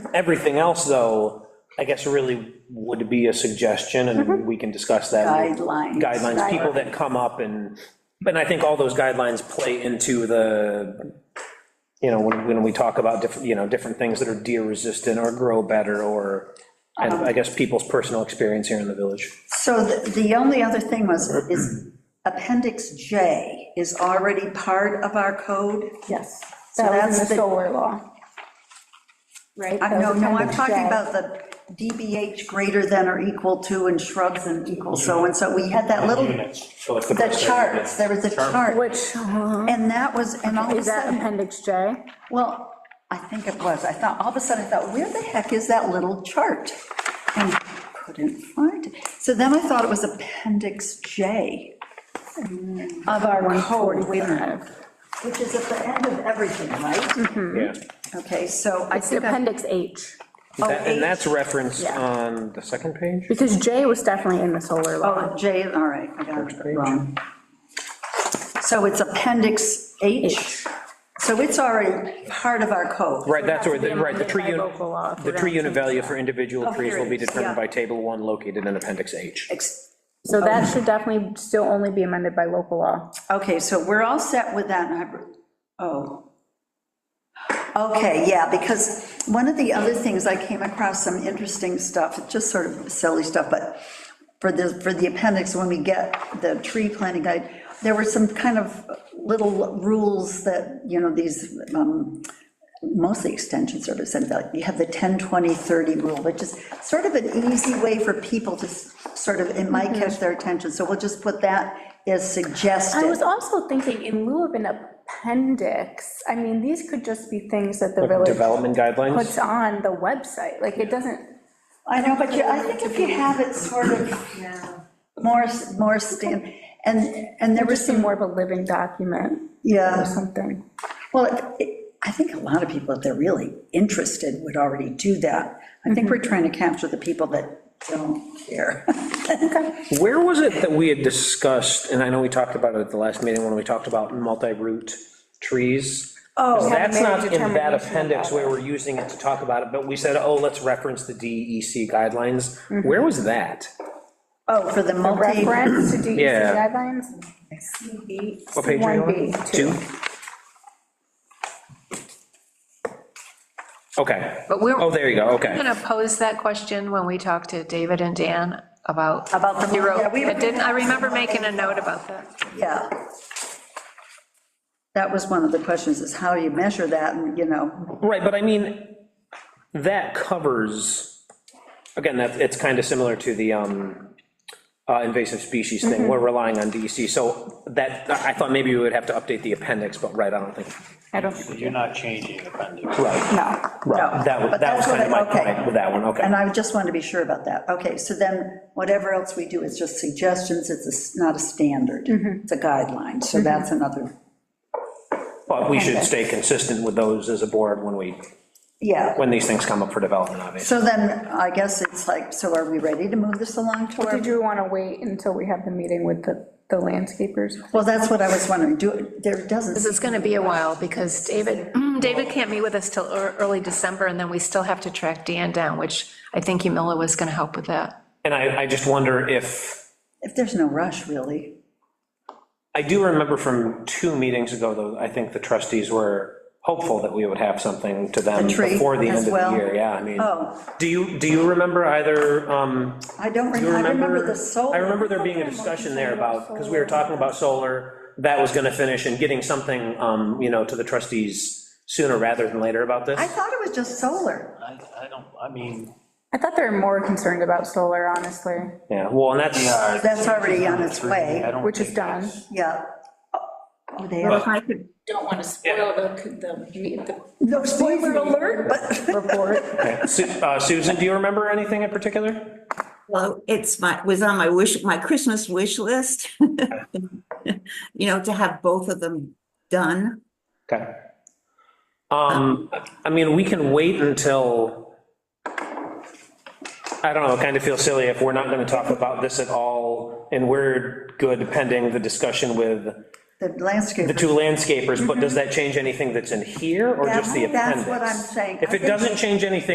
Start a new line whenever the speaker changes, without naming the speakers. Everything else, though, I guess really would be a suggestion, and we can discuss that.
Mm-hmm. Guidelines.
Guidelines, people that come up and, and I think all those guidelines play into the, you know, when, when we talk about different, you know, different things that are deer resistant or grow better, or, and
Um.
I guess people's personal experience here in the village.
So the, the only other thing was, is Appendix J is already part of our code?
Yes,
So
that was
that's
in
the-
the solar law. Right?
I
That was
know, no, I'm
appendix
talking
J.
about the DBH greater than or equal to and shrubs and equal so and so. We had that little,
So like
the charts, there was a chart.
Which, uh,
And that was, and all of a
is that
sudden,
appendix J?
well, I think it was, I thought, all of a sudden, I thought, where the heck is that little chart? And couldn't find it. So then I thought it was Appendix J of our code, wait a minute, which is at the end of everything, right?
Yeah.
Okay, so I
It's
think, I-
appendix H,
Oh,
That- And that's referenced
Yeah.
on the second page?
because J was definitely in the solar law.
oh, J, all right, I got it wrong. So it's Appendix H,
H.
so it's already part of our code.
Right, that's where,
It has
the
to be
right, the
amended
tree
by
unit,
local law if
the
we're
tree
gonna
unit
change
value
that.
for individual
Oh,
trees
here
will
it
be
is, yeah.
determined by table one located in appendix H.
Ex-
So that should definitely still only be amended by local law.
Okay, so we're all set with that, and I- oh. Okay, yeah, because one of the other things, I came across some interesting stuff, just sort of silly stuff, but for the, for the appendix, when we get the tree planting guide, there were some kind of little rules that, you know, these, um, mostly extension service, and like, you have the 10, 20, 30 rule, which is sort of an easy way for people to s- sort of, it
Mm-hmm.
might catch their attention, so we'll just put that as suggested.
I was also thinking, in lieu of an appendix, I mean, these could just be things that the village
Development guidelines?
puts on the website, like, it doesn't,
I know, but you, I think if you have it sort of more, more stand, and, and there
it would
was
just be
some,
more of a living document or
yeah,
something.
well, it- I think a lot of people, if they're really interested, would already do that. I think we're trying to capture the people that don't care.
Where was it that we had discussed, and I know we talked about it at the last meeting when we talked about multi-root trees? Oh. That's
Had made a
not in that
determination
appendix
about it.
where we're using it to talk about it, but we said, oh, let's reference the DEC guidelines.
Mm-hmm.
Where was that?
Oh, for the multi,
reference to DEC
Yeah.
guidelines?
What page are you on?
C1B,
Two? Okay.
But we're-
Oh, there you go,
I'm
okay.
going to pose that question when we talk to David and Dan about.
About the-
zero-
yeah, we-
I didn't, I remember making a note about that.
yeah. That was one of the questions, is how do you measure that, and, you know,
Right, but I mean, that covers, again, that, it's kind of similar to the um, uh, invasive species
Mm-hmm.
thing, we're relying on DEC, so that, I thought maybe we would have to update the appendix, but right, I don't think.
I don't,
You're not changing appendix.
Right,
no.
No,
That was,
but
that was
that's what
kind of
I-
my
okay.
point with that one, okay.
and I just wanted to be sure about that. Okay, so then, whatever else we do, it's just suggestions, it's a s- not a standard, it's a guideline, so that's another
But we should stay consistent with those as a board when we,
Yeah,
when these things come up for development, obviously.
so then, I guess it's like, so are we ready to move this along to our,
Did you want to wait until we have the meeting with the, the landscapers?
well, that's what I was wondering, do, there
This
doesn't,
is going to be a while because David, David can't meet with us till ear- early December and then we still have to track Dan down, which I think Yumila was going to help with that.
And I, I just wonder if.
if there's no rush, really.
I do remember from two meetings ago, though, I think the trustees were hopeful that we would have something to them
A tree
before the end
as
of the
well?
year, yeah, I mean.
Oh.
Do you, do you remember either, um,
I don't,
do you
remember. I
remember?
remember the solar.
I remember there being a discussion there about, because we were talking about solar, that was gonna finish, and getting something, um, you know, to the trustees sooner rather than later about this.
I thought it was just solar.
I, I don't, I mean,
I thought they were more concerned about solar, honestly,
Yeah, well, and that's,
yeah.
That's already on its way.
I don't
which is
think
done.
that's-
Yeah. Oh, they are.
don't want to spoil the, the,
No spoiler alert, but.
Report.
okay. Su- uh, Susan, do you remember anything in particular?
Well, it's my, was on my wish, my Christmas wish list. You know, to have both of them done.
Okay. Um, I mean, we can wait until, I don't know, it kind of feels silly if we're not gonna talk about this at all, and we're good pending the discussion with
The landscape.
the two landscapers, but does that change anything that's in here, or just the
Mm-hmm. That's- that's
appendix?
what I'm saying.
If
I
it
think-
doesn't change anything